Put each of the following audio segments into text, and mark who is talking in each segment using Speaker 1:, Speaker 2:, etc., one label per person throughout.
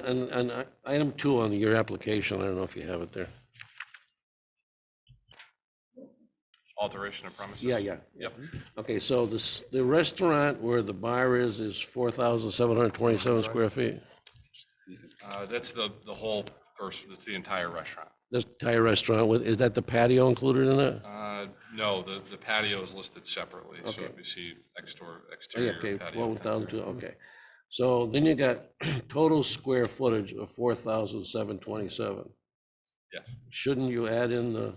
Speaker 1: And, and I- item two on your application, I don't know if you have it there.
Speaker 2: Alteration of premises?
Speaker 1: Yeah, yeah.
Speaker 2: Yep.
Speaker 1: Okay, so this, the restaurant where the bar is, is four thousand seven hundred twenty-seven square feet?
Speaker 2: Uh, That's the, the whole first, that's the entire restaurant.
Speaker 1: This Thai restaurant with, is that the patio included in it?
Speaker 2: Uh, No, the, the patio is listed separately, so
Speaker 1: Okay.
Speaker 2: if you see exterior,
Speaker 1: Oh, yeah,
Speaker 2: exterior
Speaker 1: Okay,
Speaker 2: patio.
Speaker 1: twelve thousand
Speaker 2: temporary.
Speaker 1: two, okay. So then you got total square footage of four thousand seven twenty-seven.
Speaker 2: Yeah.
Speaker 1: Shouldn't you add in the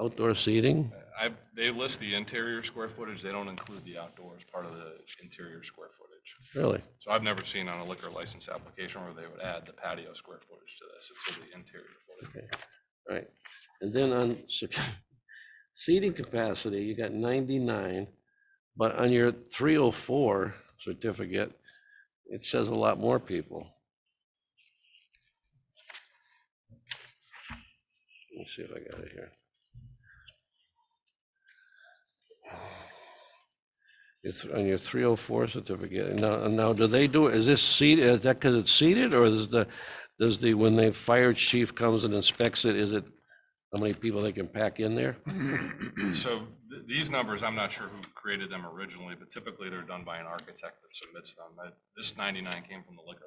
Speaker 1: outdoor seating?
Speaker 2: I, they list the interior square footage, they don't include the outdoors part of the interior square footage.
Speaker 1: Really?
Speaker 2: So I've never seen on a liquor license application where they would add the patio square footage to this, it's for the interior footage.
Speaker 1: Right, and then on sec- seating capacity, you got ninety-nine, but on your three oh four certificate, it says a lot more people. Let me see if I got it here. It's on your three oh four certificate, and now, and now do they do, is this seat, is that because it's seated, or is the, does the, when the fire chief comes and inspects it, is it how many people they can pack in there?
Speaker 2: So th- these numbers, I'm not sure who created them originally, but typically they're done by an architect that submits them. That- This 99 came from the liquor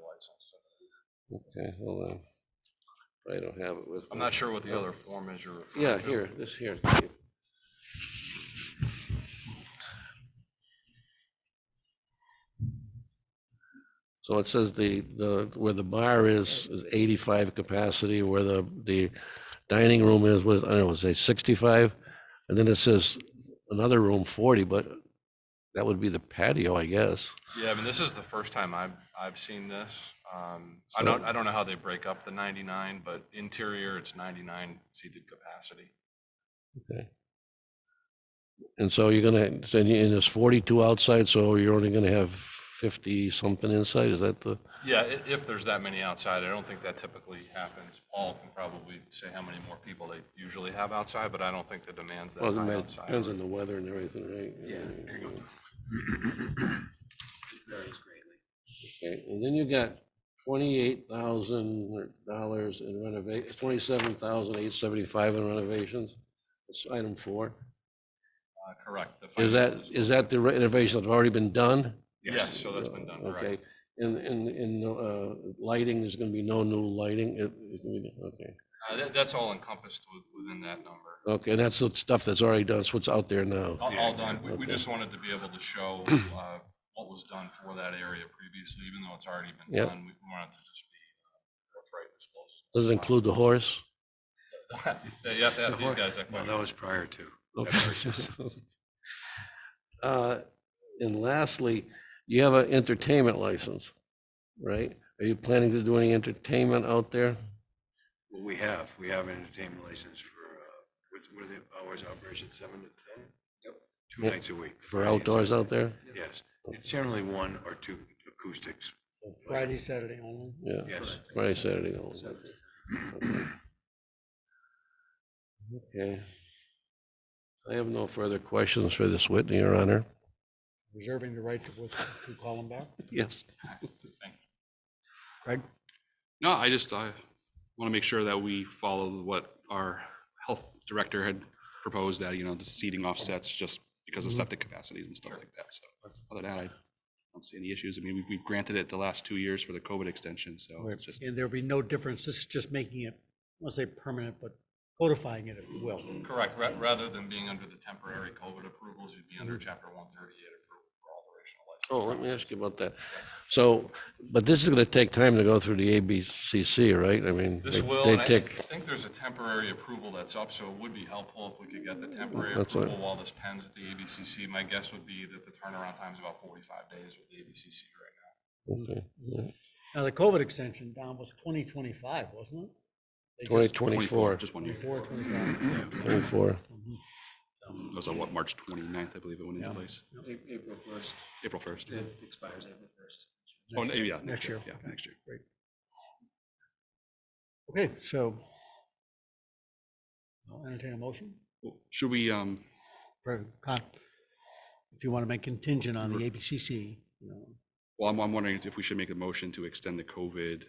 Speaker 2: license.
Speaker 1: Okay, hold on. I don't have it with.
Speaker 2: I'm
Speaker 1: me.
Speaker 2: not sure what the other form is you're referring to.
Speaker 1: Yeah, here, this here. So it says the, the, where the bar is, is eighty-five capacity, where the, the dining room is, was, I don't know, say sixty-five? And then it says another room forty, but that would be the patio, I guess.
Speaker 2: Yeah, I mean, this is the first time I've, I've seen this. Um, I don't, I don't know how they break up the 99, but interior, it's 99 seated capacity.
Speaker 1: And so you're gonna, so you- and it's forty-two outside, so you're only gonna have fifty something inside, is that the?
Speaker 2: Yeah, i- if there's that many outside, I don't think that typically happens. Paul can probably say how many more people they usually have outside, but I don't think the demand's that
Speaker 1: Well,
Speaker 2: high
Speaker 1: it
Speaker 2: outside.
Speaker 1: depends on the weather and everything, right?
Speaker 2: There you go.
Speaker 1: Okay, and then you got twenty-eight thousand dollars in renovation, twenty-seven thousand eight seventy-five in renovations. That's item four.
Speaker 2: Uh, Correct. the
Speaker 1: Is
Speaker 2: financial
Speaker 1: that,
Speaker 2: disclosure.
Speaker 1: is that the renovations that have already been done?
Speaker 2: Yes, so that's been done,
Speaker 1: Okay,
Speaker 2: correct.
Speaker 1: and, and, and, uh, lighting, there's gonna be no new lighting, It- it can be- okay.
Speaker 2: Uh, that- That's all encompassed with- within that number.
Speaker 1: Okay, and that's the stuff that's already done, that's what's out there now.
Speaker 2: All all done. We- We
Speaker 1: Okay.
Speaker 2: just wanted to be able to show uh, what was done for that area previously, even though it's already been
Speaker 1: Yep.
Speaker 2: done. We wanted to just be uh, forthright and disclose.
Speaker 1: Does it include the horse?
Speaker 2: Yeah, You have to ask these
Speaker 3: Before-
Speaker 2: guys that
Speaker 3: Well,
Speaker 2: question.
Speaker 3: that was prior to.
Speaker 1: Okay. Uh, And lastly, you have an entertainment license, right? Are you planning to do any entertainment out there?
Speaker 3: Well, we have, we have an entertainment license for, uh, what, what are the hours of operation, seven to ten? Yep. Two
Speaker 1: Yeah.
Speaker 3: nights a week.
Speaker 1: For
Speaker 3: Friday and
Speaker 1: outdoors out
Speaker 3: Saturday.
Speaker 1: there?
Speaker 3: Yes, It's generally one or two acoustics,
Speaker 4: Friday, Saturday only.
Speaker 1: Yeah,
Speaker 3: yes.
Speaker 1: Friday, Saturday. all that. Okay. I have no further questions for this Whitney, Your Honor.
Speaker 4: Reserving the right to, with- to call them back.
Speaker 1: Yes.
Speaker 4: Craig?
Speaker 5: No, I just, I want to make sure that we follow what our health director had proposed that, you know, the seating offsets just because
Speaker 1: Mm-hmm.
Speaker 5: of septic capacities and stuff like that. So other than that, I don't see any issues. I mean, we- we've granted it the last two years for the COVID extension, so it's just,
Speaker 4: And there'll be no difference. This is just making it, I won't say permanent, but codifying it, if you will.
Speaker 2: Correct. Ra- Rather than being under the temporary COVID approvals, you'd be under
Speaker 3: Mm-hmm.
Speaker 2: Chapter 138 approval for operational license.
Speaker 1: Oh, let me ask
Speaker 2: premises.
Speaker 1: you about that. So, but this is going to take time to go through the ABCC, right? I mean,
Speaker 2: This
Speaker 1: they-
Speaker 2: will,
Speaker 1: they
Speaker 2: and I I
Speaker 1: take,
Speaker 2: think there's a temporary approval that's up, so it would be helpful if we could get the temporary
Speaker 1: Mm-hmm. That's what-
Speaker 2: approval while this pens with the ABCC. My guess would be that the turnaround time is about 45 days with the ABCC right now.
Speaker 1: okay, yeah.
Speaker 4: Now, the COVID extension, Don, was twenty twenty-five, wasn't it? They just-
Speaker 1: 2024,
Speaker 5: just one year.
Speaker 4: Before 25.
Speaker 1: 24.
Speaker 4: Mhm.
Speaker 5: It was on what, March 29th, I believe it went into
Speaker 4: Yeah.
Speaker 5: place,
Speaker 3: April first,
Speaker 5: April 1st.
Speaker 3: it expires April first.
Speaker 5: Oh, no, yeah.
Speaker 4: Next year.
Speaker 5: Yeah, next year.
Speaker 4: Okay, so I'll entertain a motion
Speaker 5: Well, Should we, um,
Speaker 4: for, con- if you want to make contingent on the ABCC, you know,
Speaker 5: well, I'm, I'm wondering if we should make a motion to extend the COVID um,